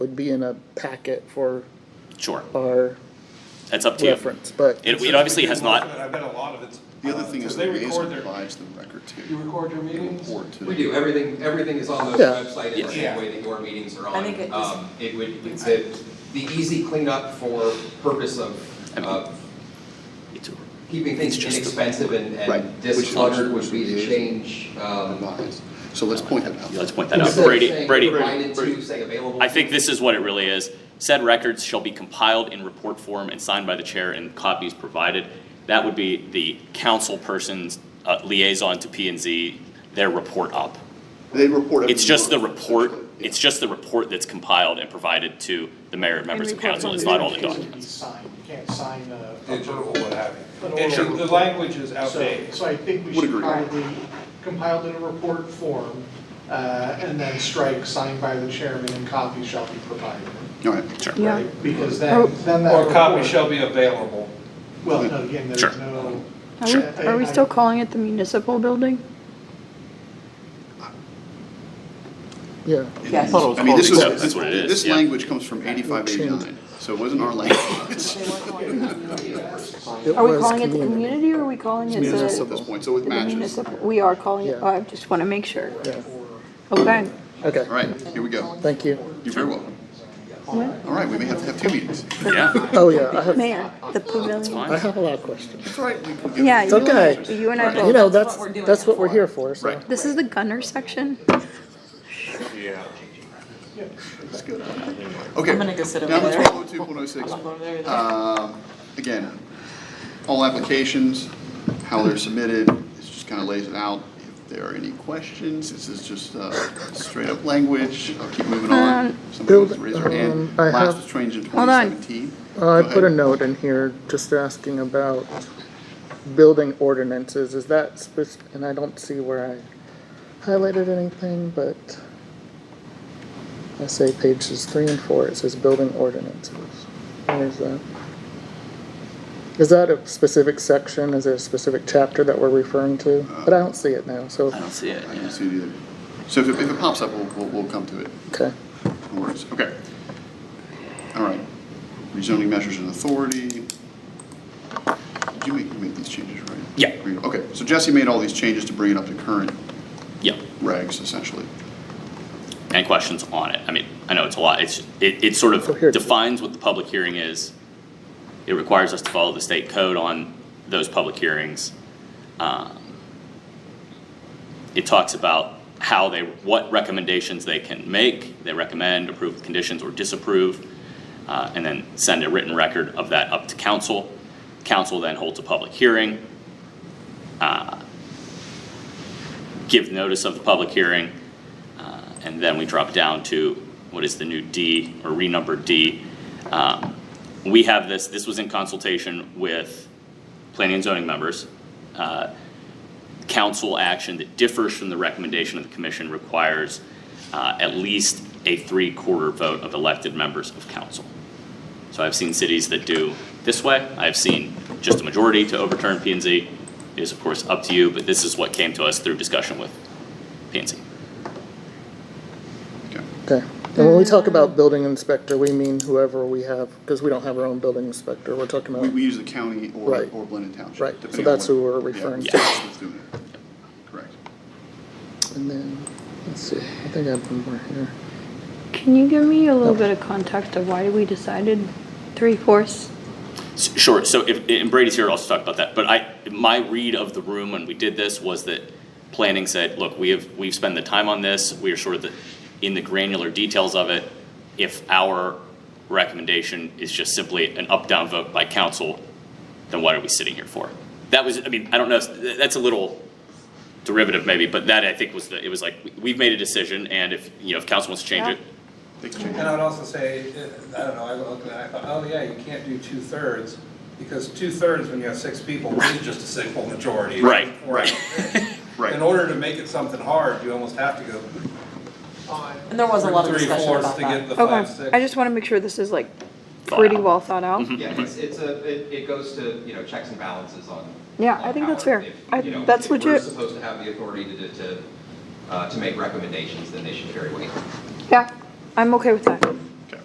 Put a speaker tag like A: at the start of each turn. A: would be in a packet for
B: Sure,
A: our
B: that's up to you.
A: reference, but
B: It, it obviously has
C: Most of
B: not,
C: it, I bet a lot of it's.
D: The other thing
C: because
D: is the
C: they record
D: liaison
C: their-
D: provides the record too.
C: You record your meetings?
D: Report to.
E: We do, everything, everything is on the
A: Yeah.
E: website
B: Yes.
E: and the way that your meetings are on.
F: I think it was-
E: Um, it would, it's a, the easy cleanup for purpose of,
B: I mean-
E: of
B: it's a-
E: keeping things
B: It's just the-
E: inexpensive and,
D: Right,
E: and
D: which is also-
E: discluttered would be to change, um.
D: Advise. So let's point that out.
B: let's point that out.
E: instead of
B: Brady,
E: saying
B: Brady,
E: Provided to, say available.
B: I think this is what it really is. Said records shall be compiled in report form and signed by the chair and copies provided. That would be the council person's uh, liaison to P and Z, their report up.
D: They report. every
B: It's just the
D: month,
B: report,
D: essentially. Yeah.
B: it's just the report that's compiled and provided to the mayor and members of
G: report
B: council,
G: from
B: it's
G: the
B: not all the
G: deputy.
B: documents.
H: Signed, you can't sign a. a
C: Digital,
H: verbal.
C: what have
H: An
C: you. It should,
H: oral.
C: the language is
H: So,
C: outdated.
H: so I think we
D: Would
H: should
D: agree.
H: probably compile it in a report form, uh, and then strike signed by the chairman and copies shall be provided.
D: All right.
B: Sure.
G: Yeah. Oh.
H: right? Because then, then that.
C: Or a copy
H: report-
C: shall be available.
H: Well, no, again,
B: Sure.
H: there's no.
G: Are
B: Sure.
G: we, are we still calling it the municipal building?
A: yeah.
F: Yes.
D: I mean, this was,
B: Yeah, that's what it is,
D: this
B: yeah.
D: language comes from eighty-five, eighty-nine, so it wasn't our language
A: it
G: Are we
A: was
G: calling it the community or are we calling it
D: at
G: the?
D: this point, so it
G: the
D: matches. All
G: municipal? We are calling it,
A: Yeah.
G: I just want to make sure.
A: Yeah.
G: Okay.
A: Okay,
D: right, here we go.
A: thank you.
D: You're very welcome.
G: What?
D: All right, we may have to have two meetings.
B: Yeah,
A: Oh, yeah, I have,
G: Mayor, the pavilion.
A: I have a lot of questions.
D: That's right. we can give
G: Yeah,
D: it-
G: you and I,
A: okay.
G: you and I
A: You
G: both.
A: know, that's,
F: we're doing
A: that's
F: it
A: what we're
F: for.
A: here for, so.
D: Right.
G: This is the gunner section?
C: Yeah.
D: Okay.
F: I'm gonna go sit over
D: Now,
F: there.
D: it's 102.06.
F: I'm going over there.
D: Um, Again, all applications, how they're submitted, it just kind of lays it out. If there are any questions, this is just uh, straight-up language. I'll keep moving on.
G: Um,
D: Somebody wants to raise their
A: Um,
D: hand.
A: I
D: Last
A: have-
D: was changed in
G: Hold on.
D: 2017.
A: Uh, I
D: Go
A: put a
D: ahead.
A: note in here just asking about building ordinances, is that spec- and I don't see where I highlighted anything, but I say pages three and four, it says building ordinances. Where is that? Is that a specific section, is there a specific chapter that we're referring to? But I don't see it now, so,
B: I don't see it,
D: I
B: yeah.
D: didn't see it either. So if it- if it pops up, we'll- we'll we'll come to it.
A: okay.
D: No worries. Okay. All right. Rezoning measures and authority. Did you make, you made these changes, right?
B: Yeah.
D: Okay, so Jesse made all these changes to bring it up to current
B: yeah.
D: regs essentially.
B: and questions on it. I mean, I know it's a lot, it's, it, it sort
A: So here-
B: of defines what the public hearing is. It requires us to follow the state code on those public hearings. Um, It talks about how they, what recommendations they can make, they recommend, approve with conditions, or disapprove, uh, and then send a written record of that up to council. Council then holds a public hearing. Uh, give notice of the public hearing, uh, and then we drop down to what is the new D or renumbered D. Um, We have this, this was in consultation with planning and zoning members. Uh, Council action that differs from the recommendation of the commission requires uh, at least a three-quarter vote of elected members of council. So I've seen cities that do this way. I've seen just a majority to overturn P and Z. It is of course up to you, but this is what came to us through discussion with P and Z.
D: Okay.
A: Okay, and when we talk about building inspector, we mean whoever we have, because we don't have our own building inspector, we're talking
D: We,
A: about
D: we use the county or,
A: Right.
D: or Blended Township.
A: Right, so
D: depending
A: that's
D: on
A: who we're
D: what-
A: referring
D: yeah,
B: to.
D: that's who's doing it. Correct.
A: And then, let's see, I think I have one more here.
G: Can you give me a little bit of context of why we decided three fourths?
B: S- Sure, so if, and Brady's here, I'll also talk about that, but I, my read of the room when we did this was that planning said, look, we have, we've spent the time on this, we are sort of the, in the granular details of it. If our recommendation is just simply an up-down vote by council, then what are we sitting here for? That was, I mean, I don't know, th- that's a little derivative maybe, but that I think was the, it was like, we- we've made a decision, and if, you know, if council wants to change
G: Yeah.
B: it,
D: They can change
C: And I would also say, uh, I don't know, I looked at it, I thought, oh yeah, you can't do two-thirds, because two-thirds when you have six people is just a simple majority.
B: Right,
C: Or-
B: right.
D: Right.
C: In order to make it something hard, you almost have to go
F: And there was a lot of discussion
C: three-fourths
F: about
C: to get
F: that.
C: the
G: Okay,
C: five-six.
G: I just want to make sure this is like
B: Thought
G: pretty
B: out.
G: well thought out.
E: Yeah, it's, it's a, it, it goes to, you know, checks and balances on.
G: Yeah,
E: on
G: I think that's
E: power.
G: fair.
E: If,
G: I-
E: you know,
G: that's
E: If we're
G: legit.
E: supposed to have the authority to, to, uh, to make recommendations, then they should carry weight.
G: Yeah, I'm okay with that.